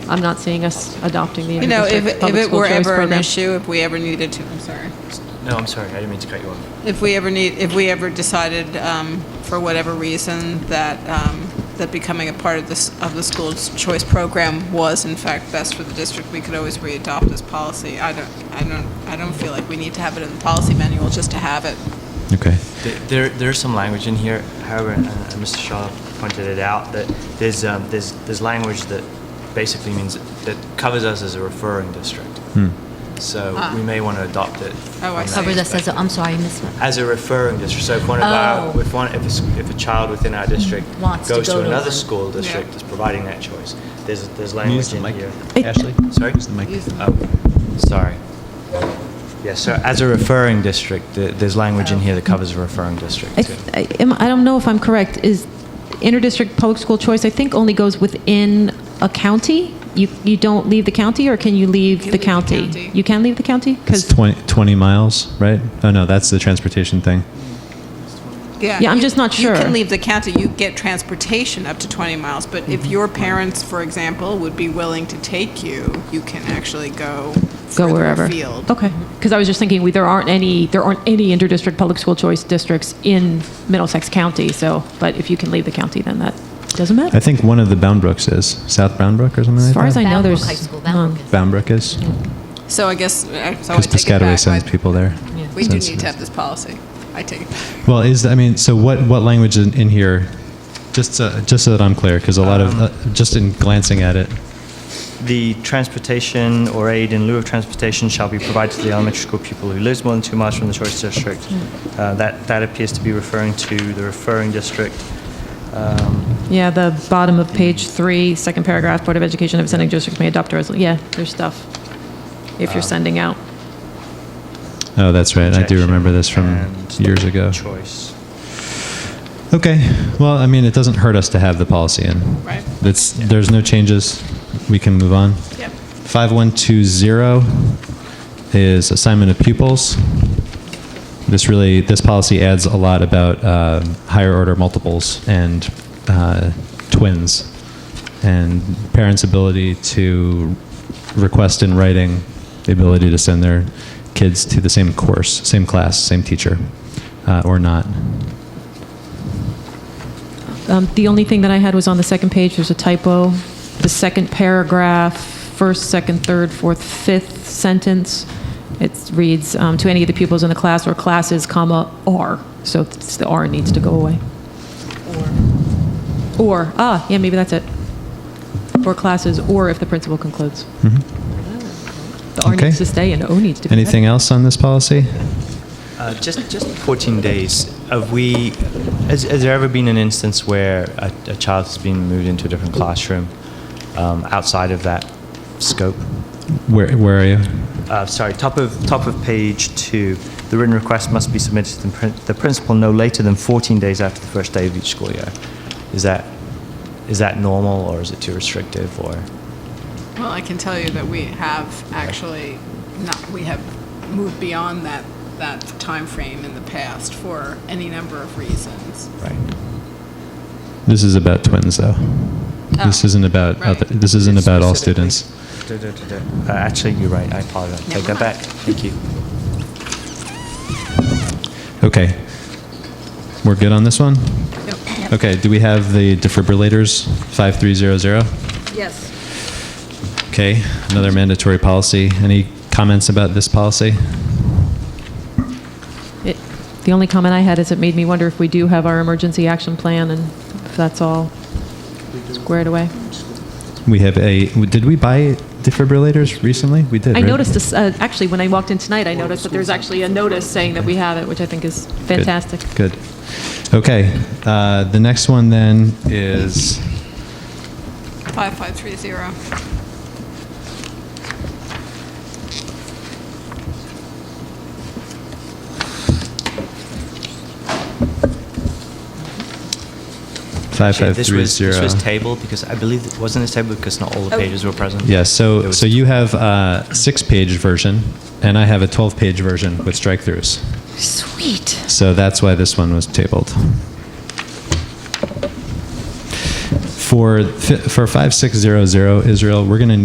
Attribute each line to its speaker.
Speaker 1: I'm not seeing us adopting the
Speaker 2: You know, if,
Speaker 1: inter-district
Speaker 2: if
Speaker 1: public
Speaker 2: it
Speaker 1: school
Speaker 2: were
Speaker 1: choice
Speaker 2: ever an
Speaker 1: program.
Speaker 2: issue, if we ever needed to, I'm sorry.
Speaker 3: No, I'm sorry, I didn't mean to cut you off.
Speaker 2: If we ever need, if we ever decided, um, for whatever reason, that, um, that becoming a part of this, of the school's choice program was in fact best for the district, we could always readopt this policy. I don't, I don't, I don't feel like we need to have it in the policy manual just to have it.
Speaker 4: Okay.
Speaker 3: Th- There, there's some language in here, however, and and Mr. Shaw pointed it out, that there's, um, there's, there's language that basically means, that covers us as a referring district. So we may want to adopt it.
Speaker 2: Oh, I
Speaker 3: from that
Speaker 2: see.
Speaker 5: Ah. Cover this as,
Speaker 3: perspective.
Speaker 5: a- I'm sorry, Ms.
Speaker 3: as a referring district. So if one of our,
Speaker 5: Oh. Mm,
Speaker 3: if one, if a, s- if a child within our district
Speaker 5: Wants to
Speaker 3: goes to
Speaker 5: go to
Speaker 3: another
Speaker 5: one.
Speaker 3: school district
Speaker 2: Yeah.
Speaker 3: that's providing that choice, there's, there's
Speaker 4: Use
Speaker 3: language
Speaker 4: the
Speaker 3: in
Speaker 4: mic.
Speaker 3: here.
Speaker 4: Ashley?
Speaker 3: Sorry?
Speaker 4: Use the mic.
Speaker 2: Use the-
Speaker 3: Oh, sorry. Yeah, so as a referring district, th- there's language in here that covers a referring district
Speaker 1: I,
Speaker 3: too.
Speaker 1: I, am- I don't know if I'm correct. Is interdistrict public school choice? I think only goes within a county. You you don't leave the county, or can you leave, the,
Speaker 2: You leave the
Speaker 1: county?
Speaker 2: county.
Speaker 1: You can leave the county because
Speaker 4: It's 20, 20 miles, right? Oh, no, that's the transportation thing.
Speaker 1: Yeah, I'm
Speaker 2: you-
Speaker 1: just not
Speaker 2: You
Speaker 1: sure.
Speaker 2: can leave the county, you get transportation up to 20 miles, but if
Speaker 1: Mm-hmm.
Speaker 2: your parents, for example, would be willing to take you, you can actually go
Speaker 1: go
Speaker 2: further
Speaker 1: wherever.
Speaker 2: afield.
Speaker 1: Okay, because I was just thinking we, there aren't any there aren't any interdistrict public school choice districts in Middlesex County. So, but if you can leave the county, then that doesn't matter.
Speaker 4: I think one of the Bound Brooks is. South Bound Brook or something
Speaker 1: As
Speaker 4: like
Speaker 1: far
Speaker 4: that?
Speaker 1: as I Oh, know,
Speaker 5: Bound Brook
Speaker 1: there's um,
Speaker 5: High School,
Speaker 1: none.
Speaker 5: Bound Brook is.
Speaker 4: Bound Brook is?
Speaker 2: So I guess, uh, so I
Speaker 4: Because
Speaker 2: take it
Speaker 4: Piscataway
Speaker 2: back.
Speaker 4: sends
Speaker 2: I-
Speaker 4: people there.
Speaker 2: We do
Speaker 4: Sends-
Speaker 2: need to have this policy. I take it back.
Speaker 4: Well, is, I mean, so what, what language in, in here, just so, just so that I'm clear, because a lot
Speaker 3: Um,
Speaker 4: of, uh, just in glancing at it,
Speaker 3: The transportation or aid in lieu of transportation shall be provided to the elementary school pupil who lives more than two miles from the choice district.
Speaker 1: Mm.
Speaker 3: Uh, That, that appears to be referring to the referring district. Um,
Speaker 1: Yeah, the bottom of page three, second paragraph, Board of Education of sending districts may adopt a resolution. Yeah, there's stuff if you're sending out.
Speaker 4: oh, that's right, I do remember this from
Speaker 3: and
Speaker 4: years ago.
Speaker 3: Choice.
Speaker 4: Okay, well, I mean, it doesn't hurt us to have the policy in.
Speaker 2: Right.
Speaker 4: That's, there's no changes, we can move on.
Speaker 2: Yep.
Speaker 4: 5120 is assignment of pupils. This really, this policy adds a lot about um, higher order multiples and uh, twins, and parents' ability to request in writing the ability to send their kids to the same course, same class, same teacher, uh, or not.
Speaker 1: Um, The only thing that I had was on the second page, there's a typo. The second paragraph, first, second, third, fourth, fifth sentence, it reads, um, "To any of the pupils in the class or classes, comma, R." So it's- the R needs to go away. Or. Or, ah, yeah, maybe that's it. Or classes, or if the principal concludes. The R
Speaker 4: Mm-hmm. Okay.
Speaker 1: needs to stay and O needs to be.
Speaker 4: Anything else on this policy?
Speaker 3: Uh, Just, just 14 days, have we, has, has there ever been an instance where a, a child has been moved into a different classroom um, outside of that scope?
Speaker 4: Where, where are you?
Speaker 3: Uh, sorry, top of, top of page two, the written request must be submitted to the prin- the principal no later than 14 days after the first day of each school year. Is that, is that normal, or is it too restrictive, or?
Speaker 2: Well, I can tell you that we have actually not, we have moved beyond that, that timeframe in the past for any number of reasons.
Speaker 3: Right.
Speaker 4: This is about twins, though. This
Speaker 2: Oh,
Speaker 4: isn't about
Speaker 2: right.
Speaker 4: other, this isn't about all students.
Speaker 3: Uh, Actually, you're right, I apologize. Take that back. Thank you.
Speaker 4: Okay, we're good on this one.
Speaker 2: Yep.
Speaker 4: Okay, do we have the defibrillators five three zero zero?
Speaker 2: Yes.
Speaker 4: Okay, another mandatory policy. Any comments about this policy?
Speaker 1: It- The only comment I had is it made me wonder if we do have our emergency action plan and if that's all squared away.
Speaker 4: We have a. Did we buy defibrillators recently? We did.
Speaker 1: I
Speaker 4: right?
Speaker 1: noticed this, uh, actually, when I walked in tonight, I noticed that there's actually a notice saying that we have it, which I think is
Speaker 4: Good.
Speaker 1: fantastic.
Speaker 4: Good. Okay, uh, the next one then is
Speaker 2: 5530.
Speaker 4: five
Speaker 3: Actually,
Speaker 4: five
Speaker 3: this
Speaker 4: three
Speaker 3: was-
Speaker 4: zero.
Speaker 3: This was tabled because I believe, it wasn't this tabled because not all the pages were present?
Speaker 4: Yeah, so,
Speaker 3: It was-
Speaker 4: so you have a six-page version, and I have a 12-page version with strike-throughs.
Speaker 5: Sweet.
Speaker 4: So that's why this one was tabled. For, fi- for 5600 Israel, we're going to